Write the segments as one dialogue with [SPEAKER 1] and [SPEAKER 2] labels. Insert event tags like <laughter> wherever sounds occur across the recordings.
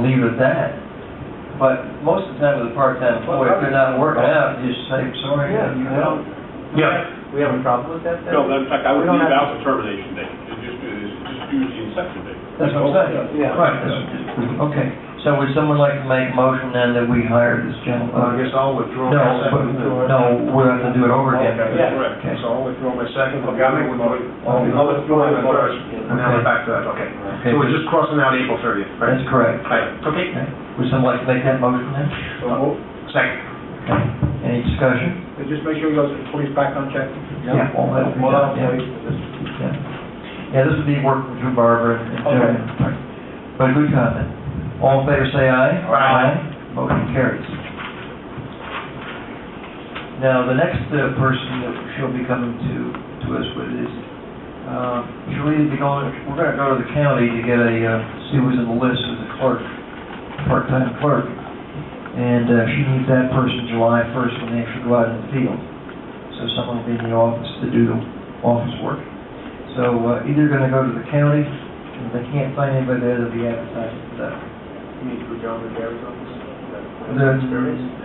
[SPEAKER 1] leave it at that. But most of the time with a part-time employee, if they're not working out, you just say, sorry,
[SPEAKER 2] Yeah,
[SPEAKER 1] you
[SPEAKER 2] I
[SPEAKER 1] know.
[SPEAKER 2] don't-
[SPEAKER 3] Yeah.
[SPEAKER 2] We have a problem with that then?
[SPEAKER 4] No, in fact, I would
[SPEAKER 2] We don't
[SPEAKER 4] leave
[SPEAKER 2] have-
[SPEAKER 4] out the termination date, and just, do- just use the inception date.
[SPEAKER 1] That's what I'm saying.
[SPEAKER 2] Yeah.
[SPEAKER 1] Right, that's- okay. So would someone like to make a motion then that we hire this
[SPEAKER 2] Uh,
[SPEAKER 5] Well, I
[SPEAKER 1] gentleman?
[SPEAKER 5] guess I'll withdraw
[SPEAKER 1] No,
[SPEAKER 5] my
[SPEAKER 1] but,
[SPEAKER 5] second.
[SPEAKER 1] no, we'll have to do it over again.
[SPEAKER 2] Yeah.
[SPEAKER 4] Correct.
[SPEAKER 1] Okay.
[SPEAKER 5] So I'll withdraw my second.
[SPEAKER 2] Okay, I'll make a motion.
[SPEAKER 5] I'll I'll withdraw my first, and now we're
[SPEAKER 1] Okay.
[SPEAKER 5] back to that, okay.
[SPEAKER 1] Okay,
[SPEAKER 5] So we're just crossing out April thirtieth, right?
[SPEAKER 1] That's correct.
[SPEAKER 5] Right, okay.
[SPEAKER 1] Okay. Would someone like to make that motion then?
[SPEAKER 5] Second.
[SPEAKER 1] Okay. Any discussion?
[SPEAKER 2] Just make sure you guys, police background check.
[SPEAKER 1] All that. will be
[SPEAKER 2] Well,
[SPEAKER 1] done,
[SPEAKER 2] I'll
[SPEAKER 1] yeah.
[SPEAKER 2] wait for this.
[SPEAKER 1] Yeah, this would be working through Barbara and Joe.
[SPEAKER 2] Okay.
[SPEAKER 1] But good comment. All in favor, say aye.
[SPEAKER 5] Aye.
[SPEAKER 1] Motion carries. Now, the next uh, person that she'll be coming to, to us with is, uh, she'll either be going, we're gonna go to the county to get a, uh, see who's in the list as a clerk, part-time clerk. And uh, she needs that person July first when they actually go out in the field. So someone will be in the office to do the office work. So uh, either gonna go to the county, and if they can't find anybody there, they'll be advertising for that.
[SPEAKER 2] You need to go down to Gary's office.
[SPEAKER 1] Then-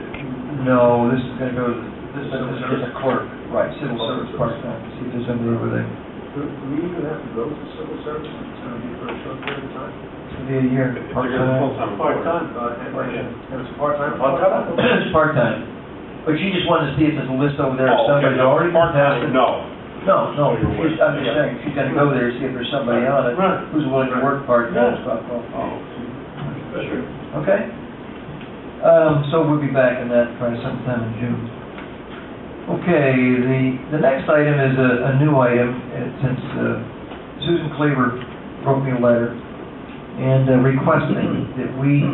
[SPEAKER 1] No, this is gonna go, to this is this is a clerk, right, civil service part-time, see if there's somebody over there.
[SPEAKER 2] Do do we even have to go to civil service? It's gonna be for a short period of time.
[SPEAKER 1] It's gonna be a year,
[SPEAKER 4] If they're gonna
[SPEAKER 1] part-time.
[SPEAKER 4] full-time employee.
[SPEAKER 2] Part-time, uh, and- and it's part-time.
[SPEAKER 1] It's part-time, but she just wanted to see if there's a list over there, if
[SPEAKER 4] Oh, okay,
[SPEAKER 1] somebody's
[SPEAKER 4] no,
[SPEAKER 1] already
[SPEAKER 4] Part-time,
[SPEAKER 1] passed it.
[SPEAKER 4] no.
[SPEAKER 1] No, no,
[SPEAKER 4] You're
[SPEAKER 1] she's, I'm just
[SPEAKER 4] aware.
[SPEAKER 1] saying, she's gonna go there, see if there's somebody on it,
[SPEAKER 2] Right.
[SPEAKER 1] who's willing to work part-time,
[SPEAKER 2] Yeah.
[SPEAKER 1] stuff, well,
[SPEAKER 4] Oh, sure.
[SPEAKER 1] <clears throat> okay? Um, so we'll be back in that probably sometime in June. Okay, the, the next item is a, a new item, uh, since uh, Susan Cleaver wrote me a letter and uh, requesting that we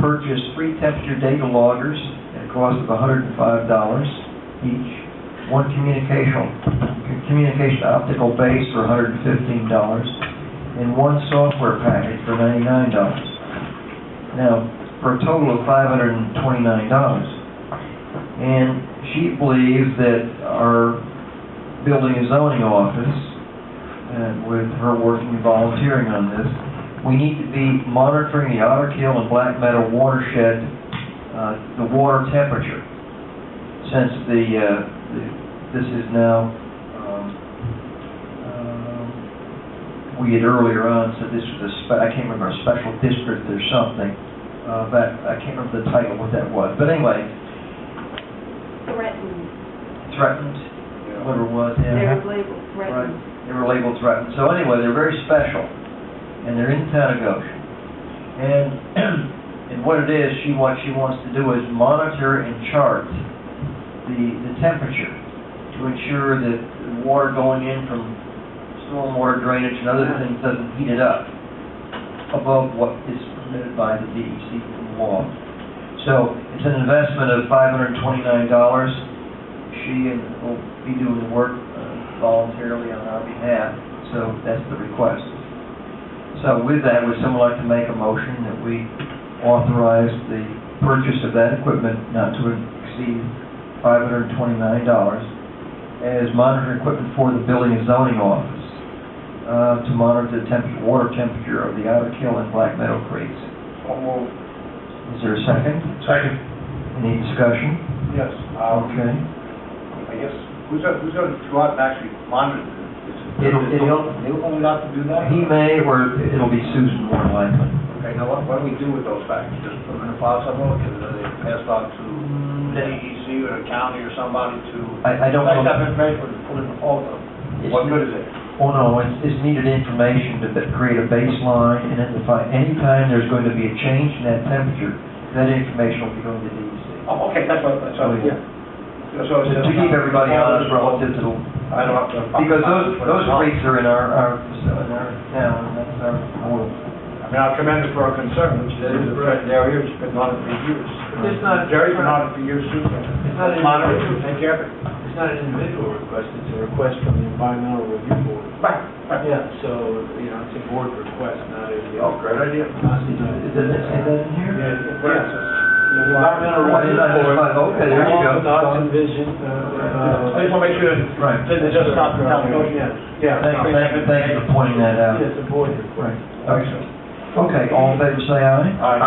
[SPEAKER 1] purchase three temperature data loggers at a cost of hundred and five dollars each, one communication, communication optical base for hundred and fifteen dollars, and one software package for ninety-nine dollars. Now, for a total of five hundred and twenty-nine dollars. And she believes that our building and zoning office, and with her working and volunteering on this, we need to be monitoring the Otter Kill and Black Meadow watershed, uh, the water temperature, since the, uh, the- this is now, um, um, we had earlier on said this was a, spe- I can't remember, a special district or something, uh, that, I can't remember the title, what that was, but anyway,
[SPEAKER 6] threatened.
[SPEAKER 1] threatened, whatever it was, yeah.
[SPEAKER 6] They were labeled threatened.
[SPEAKER 1] Right. They were labeled threatened. So anyway, they're very special, and they're in town of Goshen. And, and <clears throat> what it is, she, what she wants to do is monitor and chart the, the temperature to ensure that the water going in from stormwater drainage and other things doesn't heat it up above what is permitted by the DEC law. So it's an investment of five hundred and twenty-nine dollars. She and will be doing the work uh, voluntarily on our behalf, so that's the request. So with that, would someone like to make a motion that we authorize the purchase of that equipment not to exceed five hundred and twenty-nine dollars as monitoring equipment for the building and zoning office uh, to monitor the temperature, water temperature of the Otter Kill and Black Meadow creeks. Is there a second?
[SPEAKER 5] Second.
[SPEAKER 1] Any discussion?
[SPEAKER 2] Yes, um,
[SPEAKER 1] Okay.
[SPEAKER 2] I guess, who's gonna, who's gonna go out and actually monitor this?
[SPEAKER 1] It'll- it'll-
[SPEAKER 2] They're only allowed to do that?
[SPEAKER 1] He may, or it'll be Susan more likely.
[SPEAKER 2] Okay, now what, what do we do with those facts? Just put them in a file somewhere, because they're uh, passed on to the DEC or the county or somebody to...
[SPEAKER 1] I, I don't
[SPEAKER 2] Like,
[SPEAKER 1] know.
[SPEAKER 2] have information, put it in the folder. What good is it?
[SPEAKER 1] Oh, no, it's, it's needed information to ba- create a baseline and then define, anytime there's going to be a change in that temperature, that information will be going to DEC.
[SPEAKER 2] Oh, okay, that's what, that's
[SPEAKER 1] Oh,
[SPEAKER 2] what,
[SPEAKER 1] yeah.
[SPEAKER 2] yeah. So
[SPEAKER 1] To
[SPEAKER 2] it's just-
[SPEAKER 1] to keep everybody honest relative to, the-
[SPEAKER 2] I don't have to...
[SPEAKER 1] because those, those rates are in our, our, facility, in our town, and that's our rule.
[SPEAKER 2] I mean, I commend it for our concern, which is a threat area, it's been on it for years.
[SPEAKER 1] It's
[SPEAKER 2] not... Jerry's been on it for years, too. It's
[SPEAKER 5] not an-
[SPEAKER 2] Monitor, take care of it.
[SPEAKER 5] It's not an individual request, it's a request from the environmental review board.
[SPEAKER 2] Right, right.
[SPEAKER 5] Yeah, so, you know, it's a board request, not a.
[SPEAKER 2] Oh, great idea.
[SPEAKER 1] Does it say that in here?
[SPEAKER 5] Environmental
[SPEAKER 1] Why did I just find- Okay, there you go.
[SPEAKER 5] vision,
[SPEAKER 2] I just want to make sure that
[SPEAKER 1] Right.
[SPEAKER 2] it's just not the town code yet.
[SPEAKER 5] uh, Oh, Yeah.
[SPEAKER 1] Thank, thank, thank you for pointing that out.
[SPEAKER 5] It's a board request.
[SPEAKER 1] Right. Okay, all in favor, say aye.
[SPEAKER 2] All right.